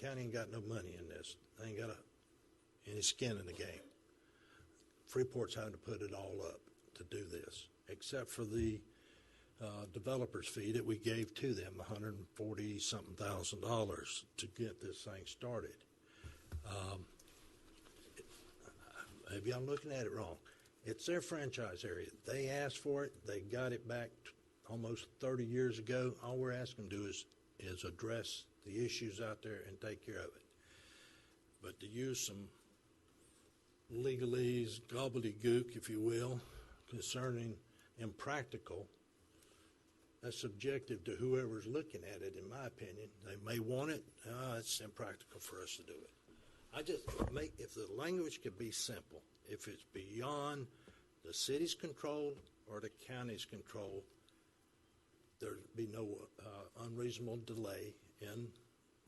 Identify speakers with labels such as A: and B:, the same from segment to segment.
A: County ain't got no money in this. They ain't got a, any skin in the game. Freeport's having to put it all up to do this, except for the uh, developer's fee that we gave to them, 140 something thousand dollars to get this thing started. Maybe I'm looking at it wrong. It's their franchise area. They asked for it. They got it back t- almost 30 years ago. All we're asking to do is, is address the issues out there and take care of it. But to use some legalese, gobbledygook, if you will, concerning impractical, that's subjective to whoever's looking at it, in my opinion. They may want it. Ah, it's impractical for us to do it. I just make, if the language could be simple, if it's beyond the city's control or the county's control, there'd be no uh, unreasonable delay in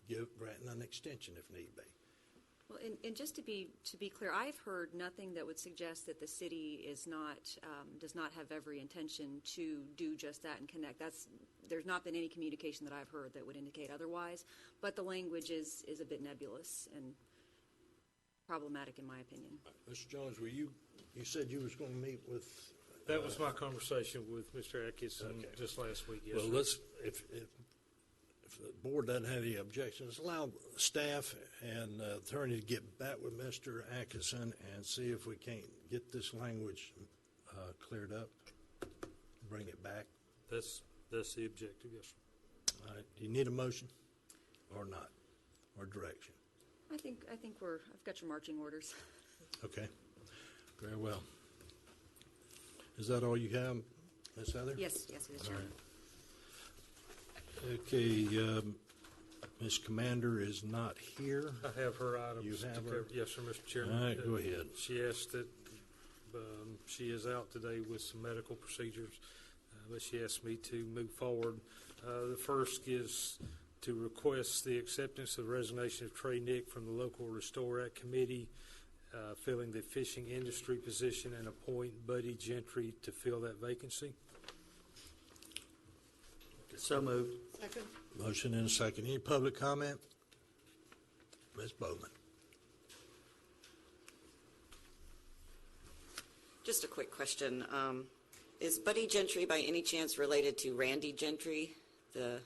A: give, granting an extension if need be.
B: Well, and, and just to be, to be clear, I've heard nothing that would suggest that the city is not, um, does not have every intention to do just that and connect. That's, there's not been any communication that I've heard that would indicate otherwise, but the language is, is a bit nebulous and problematic in my opinion.
A: Mr. Jones, were you, you said you was going to meet with,
C: That was my conversation with Mr. Atkinson
A: Okay.
C: just last week, yes,
A: well,
C: sir.
A: let's, if, if, if the board doesn't have any objections, allow staff and uh, attorney to get back with Mr. Atkinson and see if we can't get this language uh, cleared up, bring it back.
C: That's, that's the objective, yes, sir.
A: All right, do you need a motion or not, or direction?
B: I think, I think we're, I've got your marching orders.
A: Okay, very well. Is that all you have, Ms. Heather?
B: Yes, yes, it is, Chairman.
A: Okay, um, Ms. Commander is not here.
C: I have her items.
A: You
C: to
A: have her?
C: cover. Yes, sir, Mr. Chairman.
A: All right, go
C: Uh,
A: ahead.
C: She asked that, um, she is out today with some medical procedures, uh, but she asked me to move forward. Uh, The first is to request the acceptance of the resignation of Trey Nick from the local Restore Act Committee, uh, filling the fishing industry position, and appoint Buddy Gentry to fill that vacancy.
D: So moved.
A: Motion and a second. Any public comment? Ms. Bowman?
E: Just a quick question. Um, Is Buddy Gentry by any chance related to Randy Gentry, the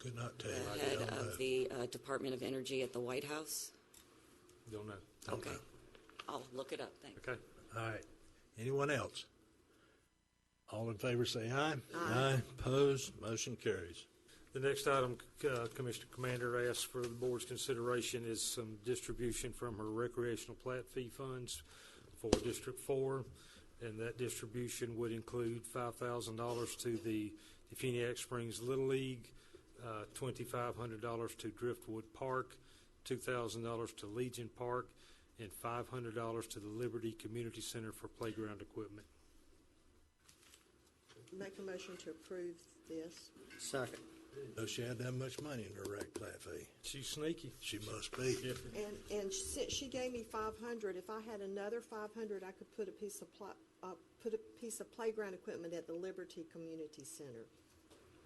A: Could not tell
E: the
A: you. I
E: head
A: don't know.
E: of the uh, Department of Energy at the White House?
C: Don't know.
A: Don't
E: Okay.
A: know.
E: I'll look it up, thanks.
C: Okay.
A: All right. Anyone else? All in favor, say aye. Aye. Opposed? Motion carries.
C: The next item, uh, Commissioner Commander asks for the board's consideration is some distribution from her recreational plat fee funds for District Four. And that distribution would include five thousand dollars to the Defeniac Springs Little League, uh, twenty-five hundred dollars to Driftwood Park, two thousand dollars to Legion Park, and five hundred dollars to the Liberty Community Center for playground equipment.
F: Make a motion to approve this.
D: Second.
A: Though she had that much money in her rec plat fee,
C: She's sneaky.
A: she must be.
F: And, and since she gave me five hundred, if I had another five hundred, I could put a piece of pla- uh, put a piece of playground equipment at the Liberty Community Center.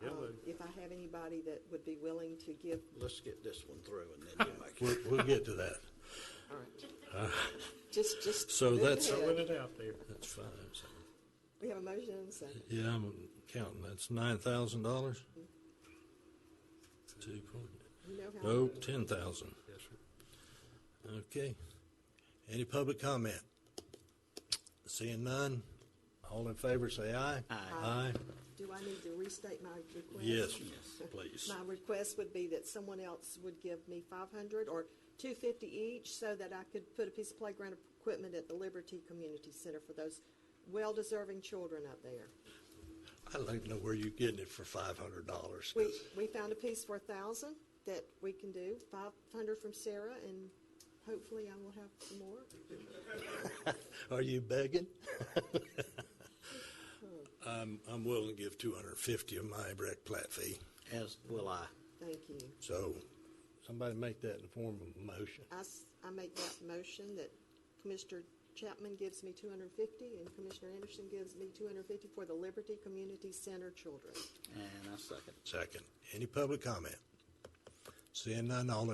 C: Yeah,
F: Um,
C: but-
F: If I have anybody that would be willing to give,
D: Let's get this one through and then you make
A: We'll, we'll get to that.
F: just, just.
A: So
F: move
A: that's-
F: ahead.
C: Throwing it out there.
A: That's fine. So,
F: We have a motion and a second.
A: Yeah, I'm counting. That's nine thousand dollars. Two point,
F: You know how.
A: no, ten thousand.
C: Yes, sir.
A: Okay. Any public comment? Seeing none, all in favor, say aye. Aye.
F: Do I need to restate my request?
A: Yes, please.
F: My request would be that someone else would give me five hundred or two fifty each so that I could put a piece of playground equipment at the Liberty Community Center for those well-deserving children up there.
A: I'd like to know where you're getting it for five hundred dollars.
F: We, we found a piece for a thousand that we can do, five hundred from Sarah and hopefully I will have some more.
A: Are you begging? I'm, I'm willing to give two hundred and fifty of my rec plat fee.
D: it. As will I.
F: Thank you.
A: So, somebody make that in the form of a motion.
F: I, s- I make that motion that Commissioner Chapman gives me two hundred and fifty and Commissioner Anderson gives me two hundred and fifty for the Liberty Community Center children.
D: And I second.
A: Second. Any public comment? Seeing none, all in